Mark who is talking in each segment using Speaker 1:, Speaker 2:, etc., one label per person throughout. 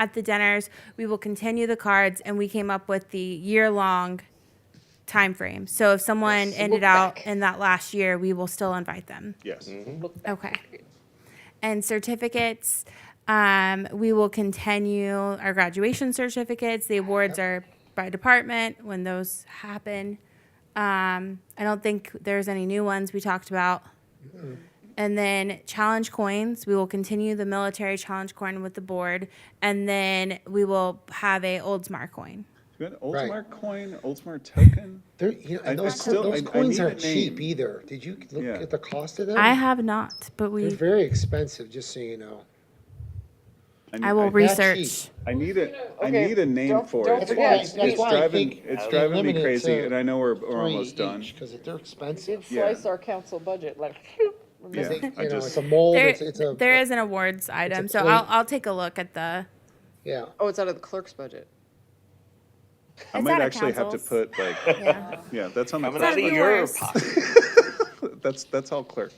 Speaker 1: at the dinners. We will continue the cards, and we came up with the year long time frame. So if someone ended out
Speaker 2: back.
Speaker 1: in that last year, we will still invite them.
Speaker 3: Yes.
Speaker 1: Okay. And certificates, um, we will continue our graduation certificates. The awards are by department when those happen. Um, I don't think there's any new ones we talked about. And then challenge coins, we will continue the military challenge coin with the board, and then we will have a Oldsmar coin.
Speaker 3: Do you have an
Speaker 2: Right.
Speaker 3: Oldsmar coin, Oldsmar token?
Speaker 2: There, you know,
Speaker 3: I- I
Speaker 2: and those, co-
Speaker 3: still- I- I
Speaker 2: those coins
Speaker 3: need a
Speaker 2: aren't cheap
Speaker 3: name.
Speaker 2: either. Did you look
Speaker 3: Yeah.
Speaker 2: at the cost of them?
Speaker 1: I have not, but
Speaker 2: They're
Speaker 1: we,
Speaker 2: very expensive, just so you know.
Speaker 3: need-
Speaker 1: I will
Speaker 2: re- That's
Speaker 1: research.
Speaker 2: cheap.
Speaker 3: I need a, I
Speaker 4: Okay,
Speaker 3: need a name
Speaker 4: don't-
Speaker 3: for
Speaker 4: don't
Speaker 3: it. It's-
Speaker 4: forget,
Speaker 3: It's
Speaker 4: that's
Speaker 3: it's
Speaker 2: why I
Speaker 3: driving,
Speaker 2: think
Speaker 3: it's
Speaker 2: they
Speaker 3: driving me
Speaker 2: limit it
Speaker 3: crazy,
Speaker 2: to
Speaker 3: and I know we're, we're almost done.
Speaker 2: Because they're expensive.
Speaker 3: Yeah.
Speaker 4: Slice our council budget like.
Speaker 3: Yeah,
Speaker 2: They- you
Speaker 3: I
Speaker 2: know,
Speaker 3: just-
Speaker 2: it's a mold,
Speaker 1: there,
Speaker 2: it's, it's a,
Speaker 1: there is an awards item, so
Speaker 2: plate.
Speaker 1: I'll, I'll take a look at the.
Speaker 2: yeah.
Speaker 4: Oh, it's out of the clerk's budget.
Speaker 3: I
Speaker 1: It's
Speaker 3: might
Speaker 1: out of
Speaker 3: actually have to
Speaker 1: councils.
Speaker 3: put like,
Speaker 1: Yeah.
Speaker 3: yeah, that's on my.
Speaker 5: Coming
Speaker 3: clerk's
Speaker 5: out of
Speaker 1: It's
Speaker 5: your
Speaker 1: yours.
Speaker 5: pocket.
Speaker 3: budget. That's, that's all clerk.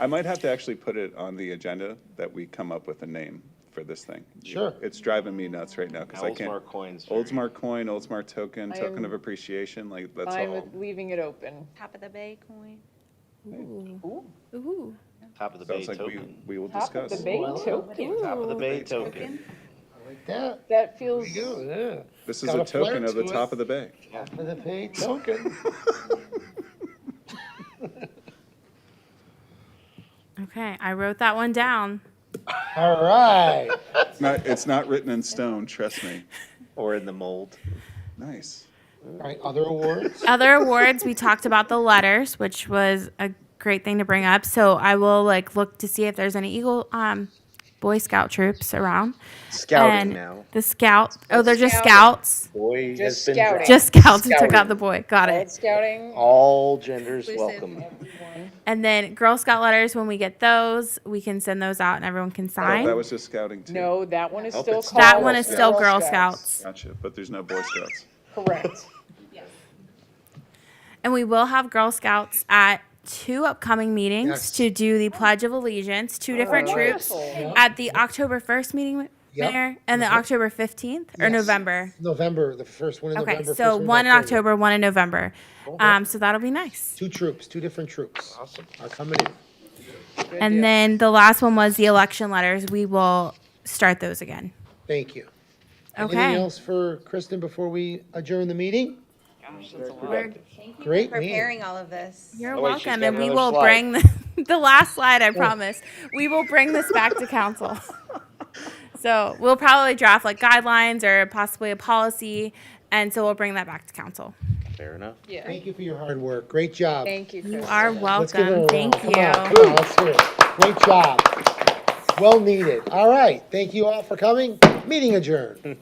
Speaker 3: I might have to actually put it on the agenda that we come up with a name for this thing.
Speaker 2: Sure.
Speaker 3: It's driving me nuts right now, because I can't.
Speaker 5: Oldsmar coins. very-
Speaker 3: Oldsmar coin, Oldsmar token,
Speaker 4: I
Speaker 3: token
Speaker 4: am
Speaker 3: of appreciation, like, that's
Speaker 4: Fine
Speaker 3: all.
Speaker 4: with leaving it open.
Speaker 6: Top of the Bay coin.
Speaker 4: Ooh,
Speaker 1: Ooh.
Speaker 5: Top of the bay
Speaker 3: Sounds like we,
Speaker 5: token.
Speaker 3: we will
Speaker 4: Top of
Speaker 3: discuss.
Speaker 4: the bay token.
Speaker 5: Top of the bay token.
Speaker 2: Like that,
Speaker 4: That
Speaker 2: there
Speaker 4: feels,
Speaker 2: you go, yeah.
Speaker 3: This is
Speaker 2: Got
Speaker 3: a
Speaker 2: a flair
Speaker 3: token of the
Speaker 2: to it.
Speaker 3: top of the bay.
Speaker 2: Half of the pay token.
Speaker 1: Okay, I wrote that one down.
Speaker 2: All right.
Speaker 3: It's not, it's not written in stone, trust me.
Speaker 5: Or in the mold.
Speaker 3: Nice.
Speaker 2: All right, other awards?
Speaker 1: Other awards, we talked about the letters, which was a great thing to bring up. So I will like look to see if there's any Eagle um, Boy Scout troops around.
Speaker 5: Scouting
Speaker 1: And
Speaker 5: now.
Speaker 1: The scout. Oh, they're just
Speaker 4: Scouting.
Speaker 1: scouts.
Speaker 5: Boy has
Speaker 4: Just
Speaker 5: been.
Speaker 4: scouting.
Speaker 5: dropped.
Speaker 1: Just scouts who took out
Speaker 5: Scouting.
Speaker 1: the boy. Got
Speaker 4: Red
Speaker 1: it.
Speaker 4: scouting.
Speaker 5: All genders welcome.
Speaker 1: And then Girl Scout letters, when we get those, we can send those out and everyone can
Speaker 3: Oh,
Speaker 1: sign.
Speaker 3: That was just scouting too.
Speaker 4: No, that one is
Speaker 5: Nope,
Speaker 4: still
Speaker 5: it's
Speaker 4: called.
Speaker 1: that one is still Girl Scouts.
Speaker 3: Gotcha, but there's no Boy Scouts.
Speaker 4: Correct.
Speaker 1: And we will have Girl Scouts at two upcoming meetings
Speaker 2: Yes.
Speaker 1: to do the Pledge of Allegiance, two different troops
Speaker 4: Wonderful.
Speaker 1: at the October 1st meeting,
Speaker 2: Yep.
Speaker 1: Mayor, and the October 15th or
Speaker 2: Yes.
Speaker 1: November.
Speaker 2: November, the first one in
Speaker 1: Okay,
Speaker 2: November. first
Speaker 1: so one in October, one in November. Um, so that'll be nice.
Speaker 2: Two troops, two different troops
Speaker 5: Awesome.
Speaker 2: are coming in.
Speaker 4: deal.
Speaker 1: And then the last one was the election letters. We will start those again.
Speaker 2: Thank you. Anything
Speaker 1: Okay.
Speaker 2: else for Kristen before we adjourn the meeting?
Speaker 1: We're-
Speaker 2: Great meeting.
Speaker 6: Preparing all of this.
Speaker 1: You're
Speaker 5: Oh, wait, she's
Speaker 1: welcome,
Speaker 5: got
Speaker 1: and we
Speaker 5: another
Speaker 1: will
Speaker 5: slide.
Speaker 1: bring the, the last slide, I promise. We will bring this back to council. So we'll probably draft like guidelines or possibly a policy, and so we'll bring that back to council.
Speaker 5: Fair enough.
Speaker 4: Yeah,
Speaker 2: Thank you for your hard work. Great job.
Speaker 4: thank you,
Speaker 1: You
Speaker 4: Chris.
Speaker 1: are
Speaker 2: Let's give her a
Speaker 1: welcome.
Speaker 2: round.
Speaker 1: Thank
Speaker 2: Come on,
Speaker 1: you.
Speaker 2: come on, let's hear it. Great job. Well needed. All right. Thank you all for coming. Meeting adjourned.